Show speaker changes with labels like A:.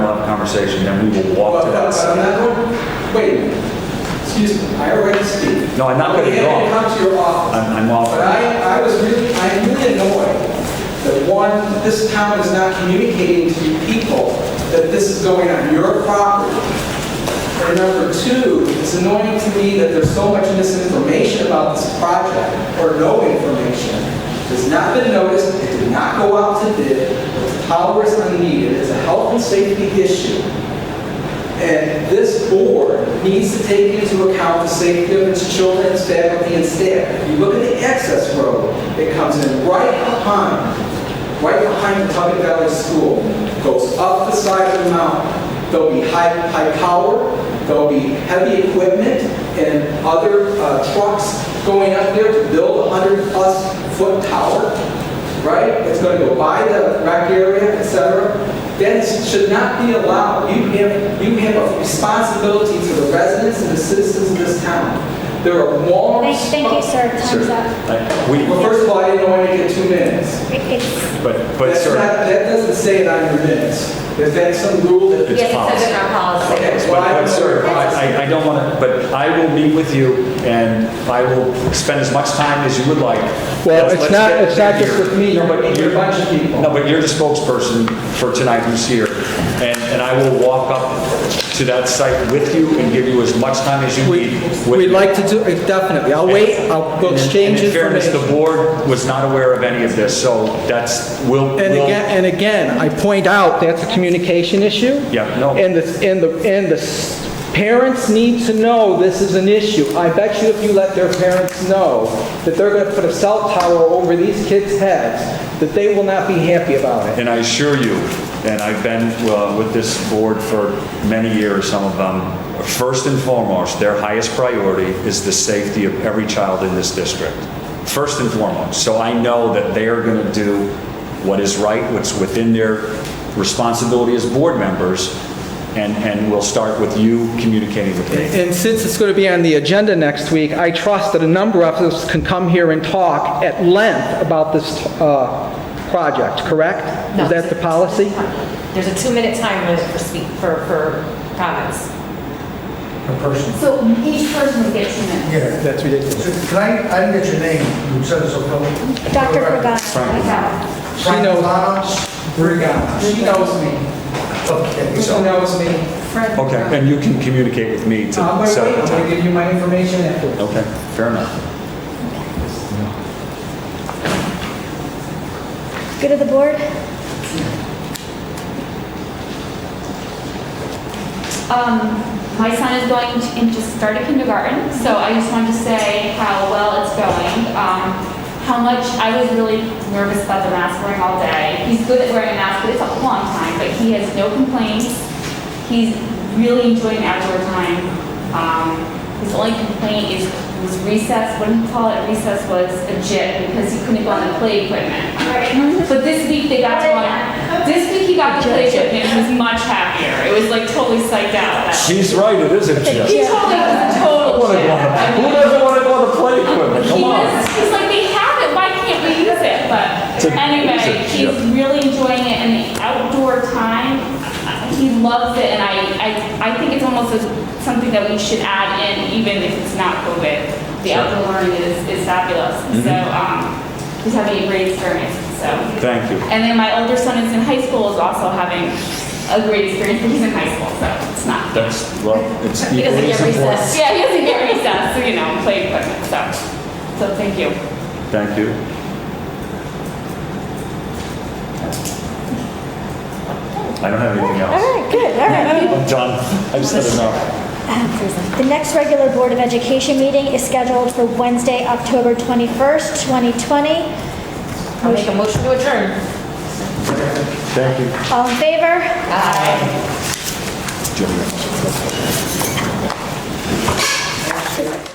A: conversation, then we will walk
B: But
A: to
B: but
A: that.
B: I'm
A: side.
B: not going, wait, excuse me, I already speak.
A: No, I'm not gonna
B: We had
A: go. Uh,
B: come to your office.
A: I'm, I'm off.
B: But I, I was really, I am really annoyed that one, this town is not communicating to you people that this is going on your property. And number two, it's annoying to me that there's so much misinformation about this project, or no information. It's not been noticed, it did not go out to bid, the power is unneeded, it's a health and safety issue. And this board needs to take into account the safety of its children, its family, and staff. You look at the access road, it comes in right behind, right behind the Tubby Valley School, goes up the side of the mountain. There'll be high, high power, there'll be heavy equipment and other uh, trucks going up there to build a 100-plus foot tower right? It's going to go by the rec area, et cetera. That should not be allowed. You have, you have a responsibility to the residents and the citizens of this town. There are walls.
C: Thank thank you, sir. Time's
A: Sir,
C: up.
A: I- We,
B: Well, first of all, I didn't know I to get two minutes.
C: It's,
A: but, but
B: That's
A: sir,
B: not- That doesn't say it on your minutes. Is that some rule that?
A: It's
D: Yes, it says it in our policy.
B: Okay,
A: but,
B: well, I don't
A: but
B: know.
A: sir, I, I- I don't want to, but I will meet with you and I will spend as much time as you would like.
E: Well,
A: Let's-
E: it's
A: let's
E: not-
A: get
E: it's not
A: here.
E: just with
B: me.
A: No, but
B: You're meeting
A: you're-
B: a bunch of people.
A: No, but you're the spokesperson for tonight who's here. And, and I will walk up to that site with you and give you as much time as you need. with
B: We'd
A: me.
B: like to do, it definitely. I'll wait, I'll we'll
A: And in-
B: exchange
A: And in fairness, the
B: information.
A: board was not aware of any of this, so that's, we'll.
E: And
A: we'll-
E: again, and again, I point out, that's a communication issue.
A: Yeah, no.
E: And the, and the, and the s- parents need to know this is an issue. I bet you if you let their parents know that they're gonna put a cell tower over these kids' heads, that they will not be happy about it.
A: And I assure you, and I've been uh, with this board for many years, some of them, first and foremost, their highest priority is the safety of every child in this district. First and foremost. So I know that they are going to do what is right, what's within their responsibility as board members, and, and we'll start with you communicating with me.
E: And since it's going to be on the agenda next week, I trust that a number of us can come here and talk at length about this uh, project, correct?
D: No,
E: Is that the policy?
D: There's a two-minute time limit for speak, for, for comments.
F: So each person will get two minutes.
G: Yeah.
E: That's ridiculous.
G: So Can I, I didn't get your name, you said it so close.
C: Dr. Pagano.
G: Frank
E: knows.
G: Lamas?
B: She knows me.
G: Okay,
B: She
G: so,
B: knows me.
A: Okay, and you can communicate with me to
B: I'm going to
A: set
B: Uh, wait,
A: the
B: I'm going
A: time.
B: to give you my information after.
A: Okay, fair enough.
C: Good of the board?
F: Um, my son is going to, and just started kindergarten, so I just wanted to say how well it's going. Um, how much, I was really nervous about the mask wearing all day. He's good at wearing a mask, but it's a long time, but he has no complaints. He's really enjoying outdoor time. Um, his only complaint is, was recess, what do you call it, recess was a jit, because he couldn't go on the play equipment. But this week they got to go on, this week he got the play equipment, and he was much happier. It was like totally psyched out. that-
A: She's right, it is a
C: Thank
A: gist.
C: you.
F: He totally was a total
A: Who
F: jit. I mean,
A: doesn't want to go to play equipment?
F: He
A: Come on.
F: was, he's like, they have it, why can't we use it? But
A: To
F: anyway,
A: use it,
F: he's
A: yeah.
F: really enjoying it and the outdoor time, he loves it and I, I, I think it's almost a- something that we should add in even if it's not COVID. The outdoor learning is, is fabulous.
A: Mm-hmm.
F: So, um, he's having a great experience, so.
A: Thank you.
F: And then my older son is in high school, is also having a great experience, but he's in high school, so it's not.
A: That's, well, it's
D: He doesn't
A: equally as
D: get
A: important.
D: recess.
F: Yeah, he doesn't get recess, so, you know, play equipment, so, so thank you.
A: Thank you. I don't have anything
C: All
A: else.
C: right, good, all right.
A: I'm done. I've said enough.
C: The next regular Board of Education meeting is scheduled for Wednesday, October 21st, 2020.
D: I'll make a motion to adjourn.
A: Thank you.
C: All in favor?
D: Aye.
A: Jimmy.